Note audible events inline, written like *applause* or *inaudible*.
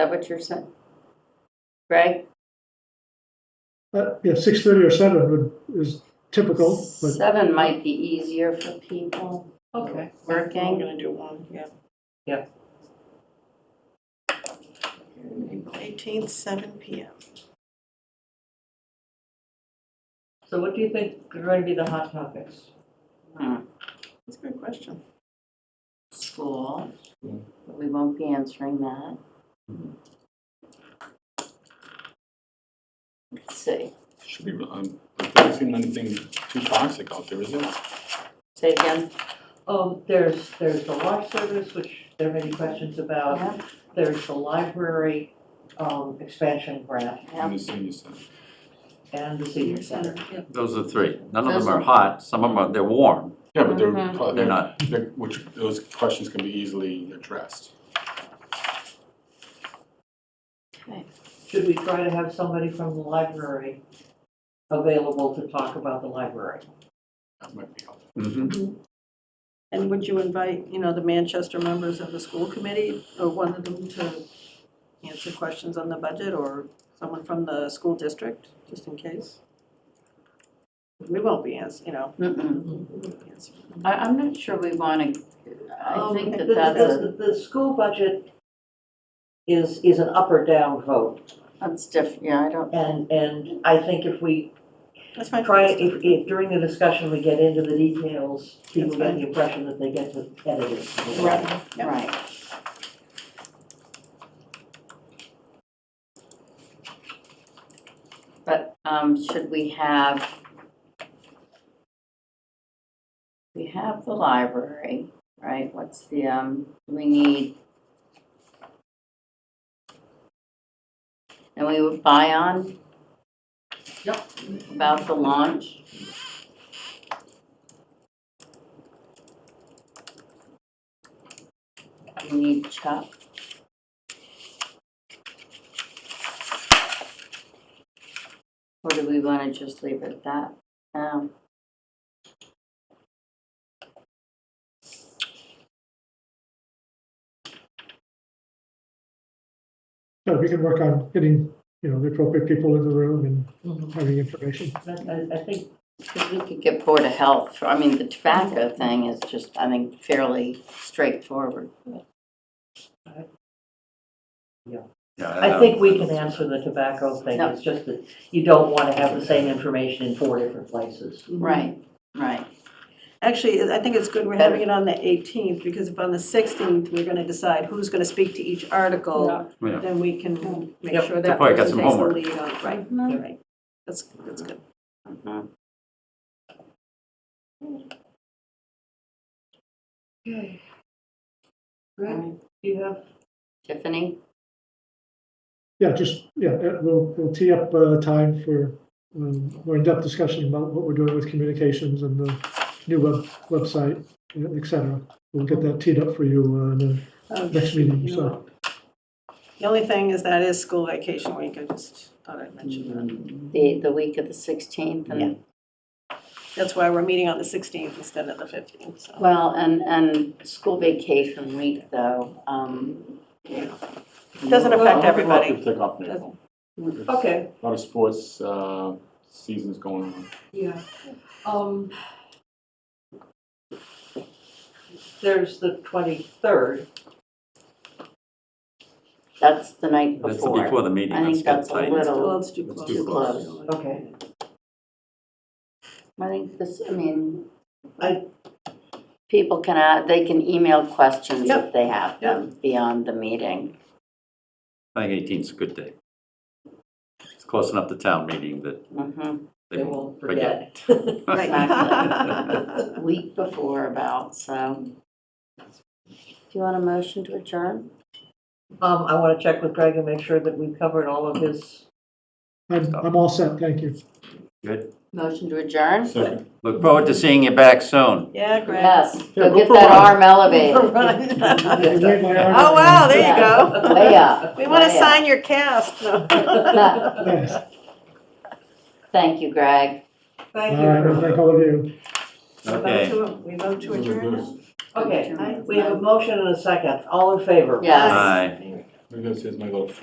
that what you're saying? Greg? Uh, yeah, six thirty or seven would, is typical, but Seven might be easier for people. Okay. I'm Working. gonna do one, yeah. Yeah. Eighteenth, seven P M. So what do you think are going to be the hot topics? That's a good question. School, but we won't be answering that. Let's see, Should be, um, but there isn't anything too toxic out there, is there? say again. Um, there's, there's the life service, which there may be questions about. Yeah, There's the library, um, expansion grant yeah. In the senior center. and the senior center. Those are three. None of Those them are are- hot, some of them are, they're warm, Yeah, but they're, Mm-hmm. Mhm. pro- they're, they're not. they're- which, those questions can be easily addressed. Okay. Should we try to have somebody from the library available to talk about the library? That might be helpful. Mhm. And would you invite, you know, the Manchester members of the school committee or one of them to answer questions on the budget or someone from the school district, just in case? We won't be ans, you know. Mm-mm. we won't be answering. I, I'm not sure we want to, I Um, think that the- that's a, The, the school budget is, is an up or down vote. that's different, yeah, I don't, And, and I think if we That's fine. try, if, if during the discussion we get into the details, people That's get fine. the impression that they get to edit it. Right, yeah. right. But, um, should we have? We have the library, right, what's the, um, we need? And we would buy on? Yep. About the launch? We need Chuck. Or do we want to just leave it at that? Um, yeah, we can work on getting, you know, the appropriate people in the room and Mhm. having information. I, I think, 'cause we could get Board of Health, for- I mean, the tobacco thing is just, I think, fairly straightforward. Yeah, Um, I don't- think we can answer the tobacco thing, No. it's just that you don't wanna have the same information in four different places. Right, right. Actually, I think it's good we're having it on the 18th, because if on the 16th, we're going to decide who's going to speak to each article, Yeah. then we can make Yep. sure Good that point, got person some takes the homework. lead on, right, Mhm. right. That's, that's good. Right, you have. Tiffany? Yeah, just, yeah, uh, we'll, we'll tee up uh time for um, more in-depth discussion about what we're doing with communications and the new web, website, you know, et cetera. We'll get that teed up for you uh, in the Um, next meeting, you know so. what? The only thing is that is school vacation week, I just thought I'd mention that. The, the week of the 16th and, That's why we're meeting on the 16th instead of the 15th, *laughs* so. well, and, and school vacation week though. um, Doesn't affect I think a lot of everybody. people Take off their phone. There's Okay, A lot of sports, uh, seasons going on. yeah, um. There's the twenty-third, That's the night That's the- before. before the meeting, I think that's good that's a tight. little- Well, it's too It's close. too close. okay. I think this, I mean, I- people can, add- they can email questions if Yep. they have them beyond the meeting. I think 18th's a good day. It's close enough to town meeting that Mhm. They won't forget. Right. Week before about, so. Do you want a motion to adjourn? *laughs* Um, I wanna check with Greg and make sure that we've covered all of *laughs* his I'm, I'm all set, thank you. Good. Motion to adjourn? Second. *laughs* Look forward to seeing you back soon. *laughs* Yeah, great. Yes, Yeah, go go get for that one. arm *laughs* elevated. Oh, You made my arm wow, around. there you go. Way up. We want to way up. sign your cast. *laughs* No. *laughs* Yes, Thank you, Greg. Thank all right, well, you. thank all of you. Okay. We vote to Those are adjourn good. now? Okay, we have a motion and a second. All in favor? Yes. Bye. Maybe this is my little